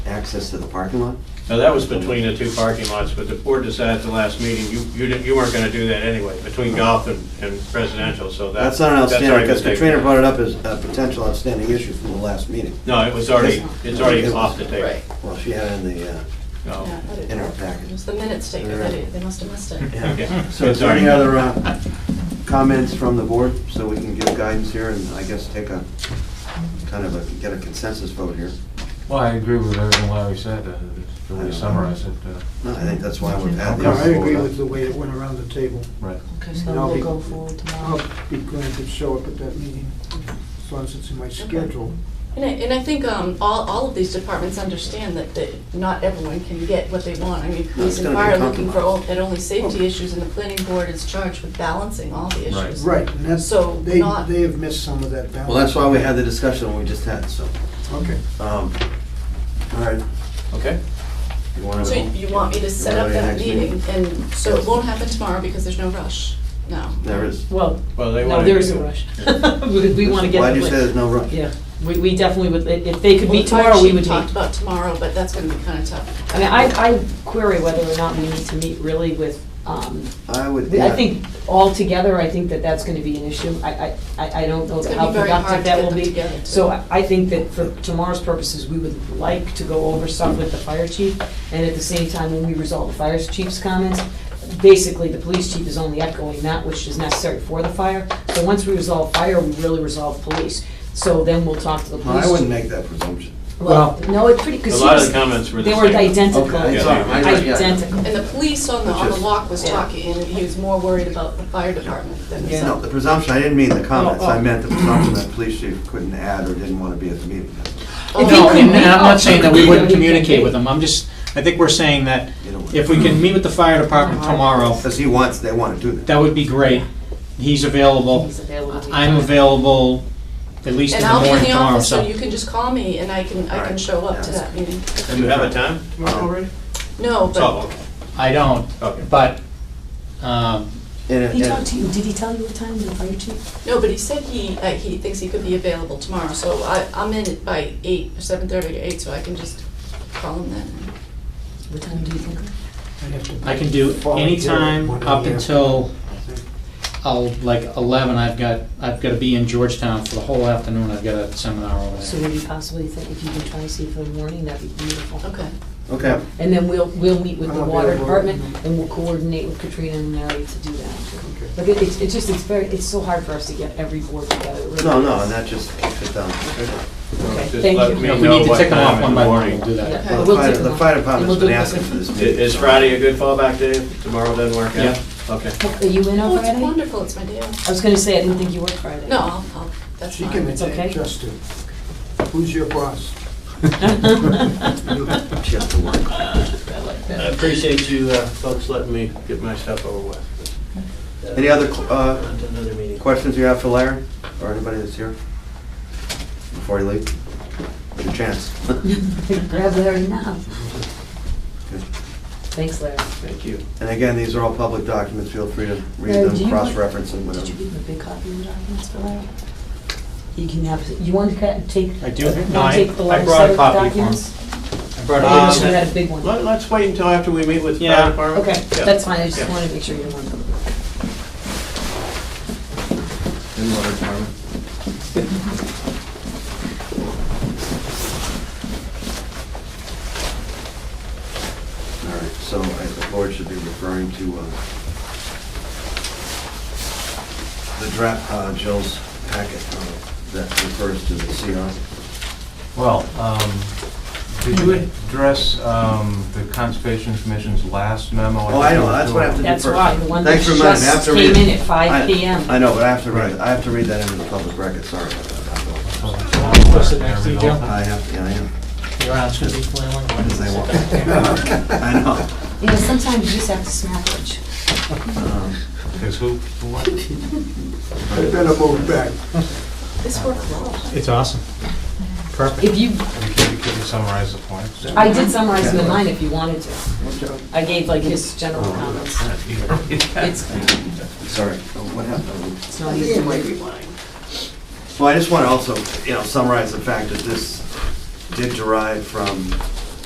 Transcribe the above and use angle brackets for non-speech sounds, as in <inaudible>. access to the parking lot? Now, that was between the two parking lots, but the board decided at the last meeting, you, you didn't, you weren't gonna do that anyway, between golf and, and residential, so that. That's not an outstanding, already because been taken Katrina care of. brought it up as a potential outstanding issue from the last meeting. No, it was already, it's already off the table. Oh, Right. Well, she had it in the, uh, No. Yeah, but it- in our It package. was the minutes taken, Right. they they must have missed it. Yeah. Okay. So is there any other uh, comments from the board, so we can give guidance here and I guess take a, kind of a, get a consensus vote here? Well, I agree with everything Larry said, uh, the way you summarized it. uh, No, I think that's why we've had these. No, I agree with the way it went around the table. Right. Okay, And I'll so be- we'll go forward I'll tomorrow. Oh. be glad to show up at that meeting, as long as it's in my schedule. And I, and I think um, all, all of these departments understand that, that not everyone can get what they want. I mean, police and gonna be fire are looking for, compromised. all- at only safety issues, and the planning board is charged with balancing all the Right. issues. Right, and that's, So they, not- they have missed some of that balance. Well, that's why we had the discussion we just had, so. Okay. um, All right. Okay. You wanna- So you want me to set up that meeting, and so it won't happen tomorrow because there's no rush now? There is. Well, Well, they no, wanted there to is a do it. rush. <laughs> We we wanna get. Why the do you say plan. there's no rush? Yeah, we, we definitely would, i- if they could Well, meet the fire tomorrow, we chief would Talked meet. about tomorrow, but that's gonna be kinda tough. I mean, I, I query whether or not we need to meet really with, um, I would. I think altogether, I think that that's gonna be an issue. I, I, I I don't know It's gonna how be very hard productive to that get will them be. together, too. So I- I think that for tomorrow's purposes, we would like to go over stuff with the fire chief, and at the same time, when we resolve the fire chief's comments, basically, the police chief is only echoing that which is necessary for the fire. So once we resolve fire, we really resolve police. So then we'll talk to the police. I wouldn't chief. make that presumption. Well, no, it's pretty, A because he lot of the was, comments were the they same. were identical. Okay, Yeah. sorry, I- yeah. Identical. And the police on the, on the Just- walk was Yeah. talking, and he was more worried about the fire department than Yeah. No, himself. the presumption, I didn't mean the comments, Oh, oh. I meant the presumption that police chief couldn't add or didn't want to be at the meeting. Oh, If he No, could and and meet I'm up, not saying that he we wouldn't could meet communicate up. with them, I'm just, I think we're saying that Either way. if we can meet with the fire department tomorrow, Because he wants, they want to do that. that would be great. He's available, He's available. I'm available, at least in And the I'll be in morning the tomorrow, office, so so. you can just call me and I can, I can Alright. show up to Yeah. that meeting. Do you have a time Um, tomorrow already? No, but, Oh, okay. I don't, Okay. but, um, And it- He talked and- to you, did he tell you what time, the fire chief? no, but he said he, uh, he thinks he could be available tomorrow, so I, I'm in by eight, seven thirty to eight, so I can just call him then. What time do you think? I'd have to- I can do any time up until, I'll, like, eleven, I've got, I've gotta be in Georgetown for the whole afternoon, I've got a seminar over So there. would you possibly think, if you can try to see for the morning, that'd be beautiful. Okay, Okay, And then we'll, we'll meet with I'm the water available. department, and we'll coordinate with Katrina and Mary to do that. Okay. But it- it's, it's just, it's very, it's so hard for us to get every board together, it really. no, no, is. and that just um, kicks it down. Okay, Just thank let you. me No, We know need to what tick them time off in one the by one, morning. we'll do that. Yeah, Well, we'll The take fire- them the off. fire And department's we'll been do it asking with- for this I- meeting. Is so- Friday a good fallback day tomorrow then, Mark? Yeah. Okay. Are you in on oh, it's Friday? wonderful, it's my day off. I was gonna say, I didn't think you worked Friday. No, I'll, I'll, that's She fine. can It's okay. adjust it. Who's your boss? <laughs> <laughs> <laughs> She has to <laughs> work. I appreciate you uh, folks letting me get my stuff over with. Any other uh, Onto Another meeting. questions you have for Larry, or anybody that's here? Before you leave? Your chance. Grab Larry now. Thanks, Larry. Thank you. And again, these are all public documents, feel free to Larry, read do them, you want- cross-reference them, Did you whatever. give him a big copy of the documents for Larry? You can have, you want to ca- take? I do. want to No, I- take the I large brought a set of copy for him. documents? I brought it Um, up. Maybe you had a big one. Let- Let's wait until after we meet with the Yeah. fire department. Okay, Yeah. that's fine, I just Yeah. wanted to make sure you didn't want them. In water department. All right, so I- the board should be referring to uh, the draft, uh, Jill's packet uh, that refers to the CR. Well, um, did you address um, the Conservation Commission's last memo? Oh, I know, that's what I have to do first. That's why, the one that Thanks for reminding me, I have just to read it. came in at five I- PM. I know, but I have to read, I have to read that into the public record, sorry about that. Listen next to you, Joe. I have, yeah, I know, Oh. Your aunt's gonna be flailing. because I want, <laughs> I know. You know, sometimes you just have to smack it. Um, Because who, what? I better move back. This worked well. It's awesome. Perfect. If you, Could you could you summarize the points? I did summarize them in mine if you wanted to. I gave like his general <laughs> comments. It's, Sorry, Oh, what happened? it's not easy. Well, I just want to also, you know, summarize the fact that this did derive from